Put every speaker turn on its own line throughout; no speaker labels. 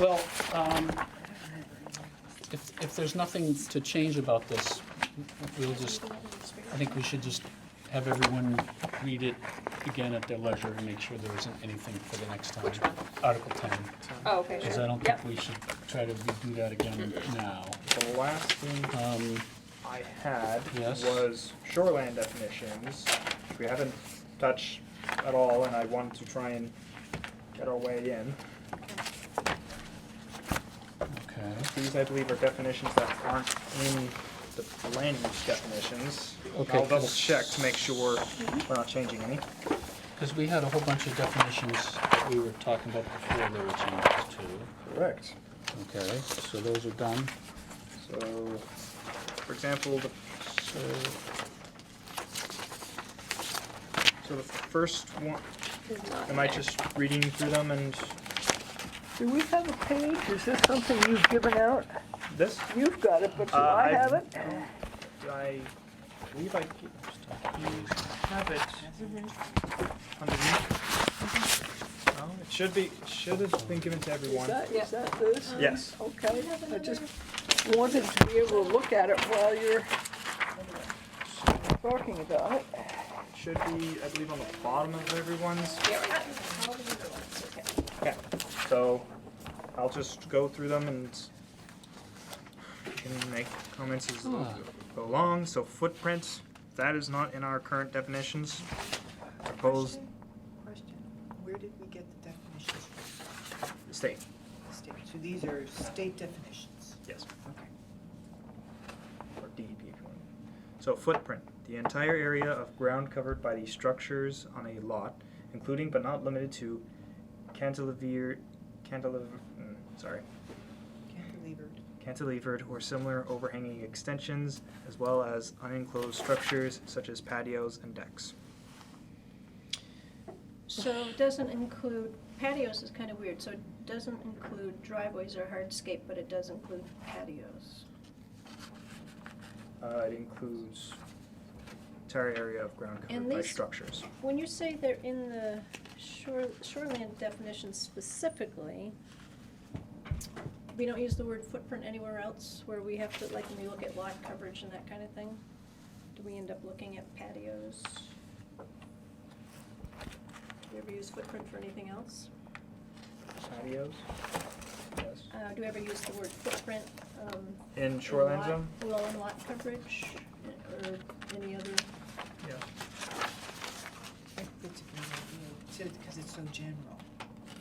Well, um, if, if there's nothing to change about this, we'll just, I think we should just have everyone read it again at their leisure and make sure there isn't anything for the next time, Article 10.
Oh, okay,
Because I
sure.
don't think we should try to redo that again now.
The last thing
Um,
I had
Yes.
was shoreland definitions, which we haven't touched at all, and I wanted to try and get our way in.
Okay,
These, I believe, are definitions that aren't in the land use definitions.
Okay.
I'll double check to make sure we're not changing any.
because we had a whole bunch of definitions that we were talking about before there were changes to.
Correct.
Okay, so those are done.
So, for example, the, so, so the first one, am I just reading through them and
Do we have a page? Is this something you've given out?
this?
You've got it, but do
Uh,
I
I've-
haven't?
I believe I have it underneath. No, it should be, it should have been given to
Is
everyone.
that, is that this?
Yes.
Okay, I just wanted to be able to look at it while you're talking about it.
It Should be, I believe, on the bottom of everyone's. Okay, so I'll just go through them and you can make comments as
Ah.
go along. So footprint, that is not in our current definitions. Proposed
Question, question, where did we get the definitions from
state,
the state? So these are state definitions.
yes.
Okay.
or DEP if you want. So footprint, the entire area of ground covered by the structures on a lot, including but not limited to cantilever, cantilever, mm, sorry,
Cantilevered.
cantilevered or similar overhanging extensions, as well as unenclosed structures such as patios and decks.
So it doesn't include, patios is kind of weird, so it doesn't include driveways or hardscape, but it does include patios.
Uh, it includes entire area of ground covered
And
by
these-
structures.
When you say they're in the shore, shoreland definition specifically, we don't use the word footprint anywhere else where we have to, like, when we look at lot coverage and that kind of thing? Do we end up looking at patios? Do we ever use footprint for anything else?
Patios? Yes.
Uh, do we ever use the word footprint, um,
In shoreline
lot-
zone?
Well, in lot coverage or any other,
Yeah.
I think That's a good idea, because it's so general.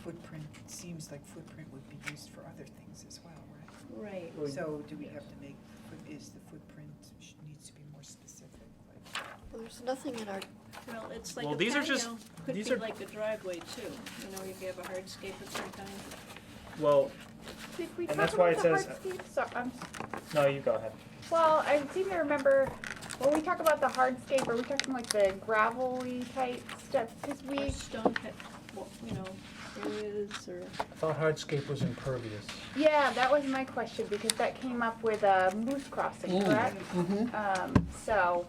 Footprint, seems like footprint would be used for other things as well, right?
right.
Well,
So do we have to make, foot- is the footprint, sh- needs to be more specific, like?
Well, there's nothing in our,
Well, it's like
Well,
a
these are just-
patio could
these
be
are-
like a driveway too, you know, if you have a hardscape of some kind.
Well,
Did we
And that's
talk
why
about
it
the
says-
hardscape? So, um,
no, you go ahead.
well, I seem to remember, when we talk about the hardscape, are we talking like the gravelly type stuff? Cause
Or
we,
stone pit, well, you know, areas or,
I thought hardscape was impervious.
yeah, that was my question, because that came up with, uh, moose crossing,
Mm,
correct? Um, so,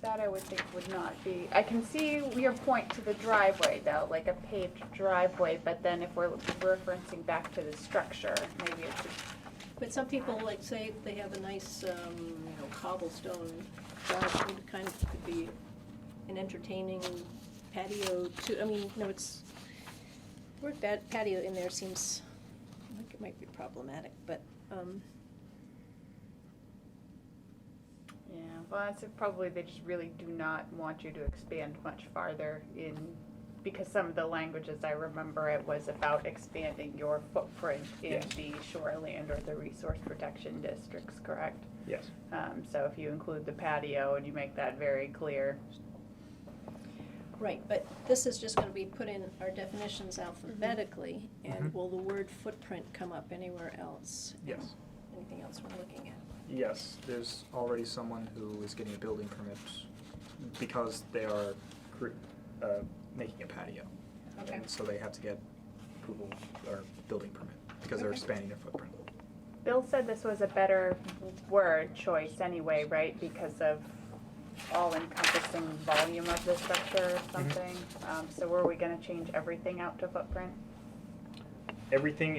that I would think would not be, I can see your point to the driveway though, like a paved driveway, but then if we're referencing back to the structure, maybe it's
but some people like say they have a nice, um, you know, cobblestone driveway, it kind of could be an entertaining patio too, I mean, no, it's, word bad patio in there seems like it might be problematic, but, um,
Yeah, well, that's it, probably they just really do not want you to expand much farther in, because some of the languages I remember it was about expanding your footprint in
Yes.
the shoreland or the resource protection districts, correct?
Yes.
Um, so if you include the patio and you make that very clear,
Right, but this is just gonna be put in our definitions alphabetically, and
Mhm.
will the word footprint come up anywhere else?
Yes.
Anything else we're looking at?
Yes, there's already someone who is getting a building permit because they are cre- uh, making a patio.
Okay.
And so they have to get approval or building permit because they're
Okay.
expanding their footprint.
Bill said this was a better word choice anyway, right, because of all encompassing volume of the structure or something? Um, so were we gonna change everything out to footprint?
Everything